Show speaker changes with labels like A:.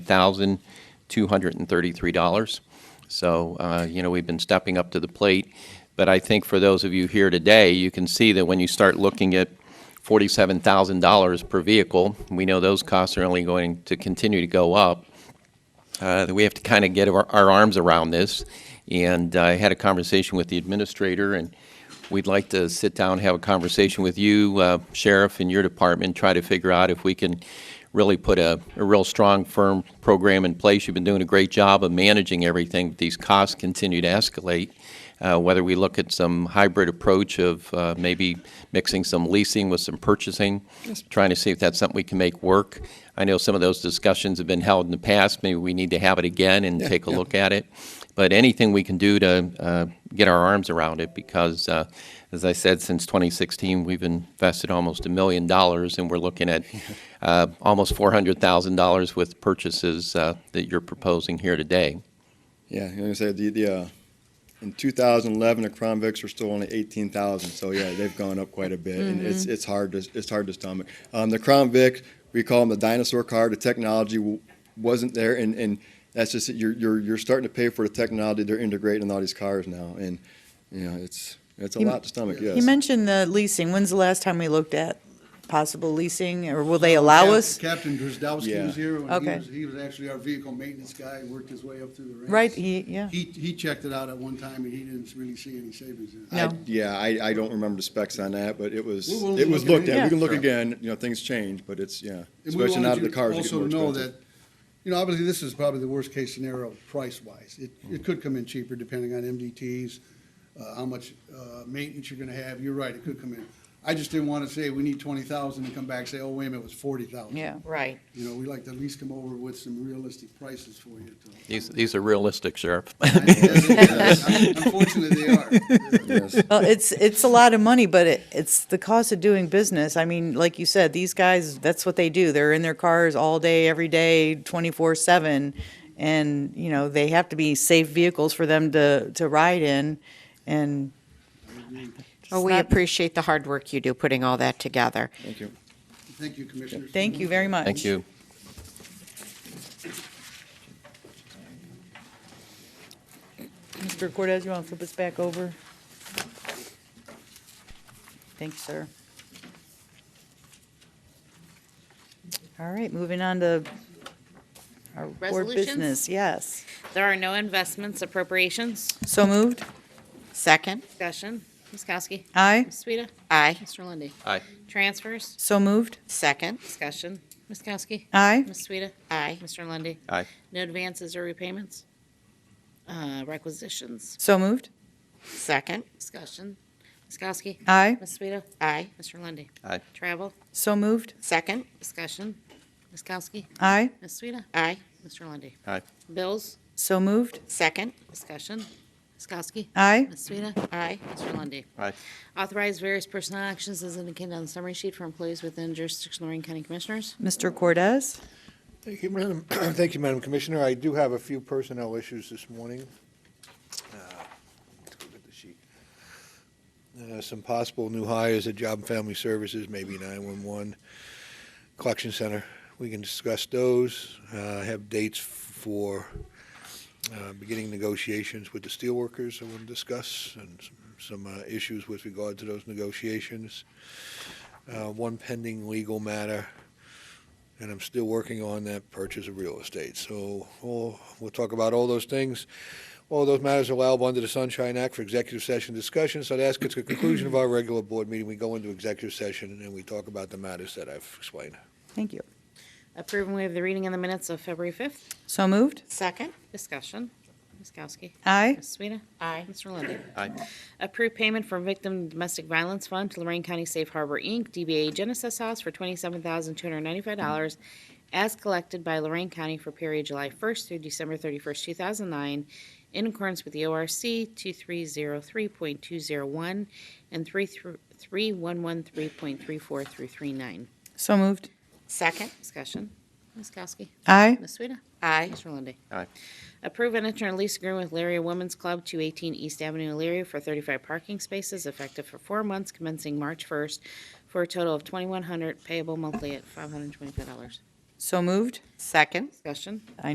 A: thousand two hundred and thirty-three dollars. So, uh, you know, we've been stepping up to the plate. But I think for those of you here today, you can see that when you start looking at forty-seven thousand dollars per vehicle, we know those costs are only going to continue to go up. Uh, that we have to kind of get our, our arms around this. And I had a conversation with the administrator, and we'd like to sit down, have a conversation with you, uh, Sheriff, and your department, try to figure out if we can really put a, a real strong, firm program in place. You've been doing a great job of managing everything, but these costs continue to escalate. Uh, whether we look at some hybrid approach of uh, maybe mixing some leasing with some purchasing, trying to see if that's something we can make work. I know some of those discussions have been held in the past. Maybe we need to have it again and take a look at it. But anything we can do to uh, get our arms around it, because uh, as I said, since 2016, we've invested almost a million dollars, and we're looking at uh, almost $400,000 with purchases uh, that you're proposing here today.
B: Yeah, like I said, the, the, uh, in 2011, the Crown Vics were still only 18,000, so yeah, they've gone up quite a bit, and it's,
C: Mm-hmm.
B: it's hard to, it's hard to stomach. Um, the Crown Vic, we call them the dinosaur car, the technology w- wasn't there, and, and that's just, it. you're, you're, you're starting to pay for the technology they're integrating in all these cars now, and, you know, it's, it's a
C: You-
B: lot to stomach, yes.
C: You mentioned the leasing. When's the last time we looked at possible leasing, or will
A: Uh,
C: they allow
D: Cap-
C: us?
D: Captain Drzdowski
B: Yeah.
D: was here, when he
C: Okay.
D: was, he was actually our vehicle maintenance guy, worked his way up through the ranks.
C: Right, he, yeah.
D: He, he checked it out at one time, and he didn't really see any savings in it.
B: I-
C: No.
B: Yeah, I, I don't remember the specs on that, but it was,
D: We're willing
B: it
D: to
B: was
D: look at
B: looked at,
C: anything.
B: we can look
D: Yeah.
B: again, you know, things change, but it's, yeah,
D: And we
B: especially now
D: wanted
B: that the
D: you to
B: cars are getting more
D: Also know
B: expensive.
D: that, you know, obviously, this is probably the worst-case scenario price-wise. It, it could come in cheaper depending on MDTs, uh, how much, uh, maintenance you're gonna have. You're right, it could come in. I just didn't wanna say, we need twenty thousand, and come back and say, oh, wait a minute, it was forty thousand.
C: Yeah.
E: Right.
D: You know, we like to at least come over with some realistic prices for you to.
A: These, these are realistic, Sheriff.
D: Unfortunately, they are.
C: Well, it's, it's a lot of money, but it, it's the cost of doing business. I mean, like you said, these guys, that's what they do. They're in their cars all day, every day, twenty-four seven. And, you know, they have to be safe vehicles for them to, to ride in and.
E: Well, we appreciate the hard work you do putting all that together.
B: Thank you.
D: Thank you, Commissioners.
C: Thank you very much.
A: Thank you.
C: Mr. Cortez, you want to flip us back over? Thanks, sir. All right, moving on to our board
F: Resolutions?
C: business, yes.
F: There are no investments appropriations.
C: So moved?
E: Second,
F: Discussion. Ms. Kowski.
C: Aye.
F: Ms. Sueda.
E: aye.
F: Mr. Lundy.
A: Aye.
F: Transfers.
C: So moved?
E: Second,
F: Discussion. Ms. Kowski.
C: Aye.
F: Ms. Sueda.
E: aye.
F: Mr. Lundy.
A: Aye.
F: No advances or repayments. Uh, Requisitions.
C: So moved?
E: Second,
F: Discussion. Ms. Kowski.
C: Aye.
F: Ms. Sueda.
E: aye.
F: Mr. Lundy.
A: Aye.
F: Travel.
C: So moved?
E: Second,
F: Discussion. Ms. Kowski.
C: Aye.
F: Ms. Sueda.
E: aye.
F: Mr. Lundy.
A: Aye.
F: Bills.
C: So moved?
E: Second,
F: Discussion. Ms. Kowski.
C: Aye.
F: Ms. Sueda.
E: aye.
F: Mr. Lundy.
A: Aye.
F: Authorize various personnel actions as indicated on the summary sheet for employees within jurisdiction of Lorraine County Commissioners.
C: Mr. Cortez?
G: Thank you, Madam, thank you, Madam Commissioner. I do have a few personnel issues this morning. Uh, let's go get the sheet. Uh, Some possible new hires at Job and Family Services, maybe 911, Collection Center. We can discuss those. Uh, I have dates for uh, beginning negotiations with the steelworkers I want to discuss and s- some uh, issues with regard to those negotiations. Uh, One pending legal matter and I'm still working on that purchase of real estate. So all, we'll talk about all those things. All those matters are allowable under the Sunshine Act for executive session discussion. So that's at the conclusion of our regular board meeting. We go into executive session and we talk about the matters that I've explained.
C: Thank you.
F: Approve and waive the reading of the minutes of February 5th.
C: So moved?
E: Second,
F: Discussion. Ms. Kowski.
C: Aye.
F: Ms. Sueda.
E: aye.
F: Mr. Lundy.
A: Aye.
F: Approve payment for Victim Domestic Violence Fund to Lorraine County Safe Harbor, Inc., DBA Genesis House for $27,295 as collected by Lorraine County for period July 1st through December 31st, 2009, in accordance with the ORC 2303.201 and 3113.34 through 39.
C: So moved?
E: Second,
F: Discussion. Ms. Kowski.
C: Aye.
F: Ms. Sueda.
E: aye.
F: Mr. Lundy.
A: Aye.
F: Approve an interim lease agreement with Larry Women's Club, 218 East Avenue, Larry, for 35 parking spaces effective for four months commencing March 1st, for a total of 2,100 payable monthly at $525.
H: So moved?
I: Second.
C: Discussion.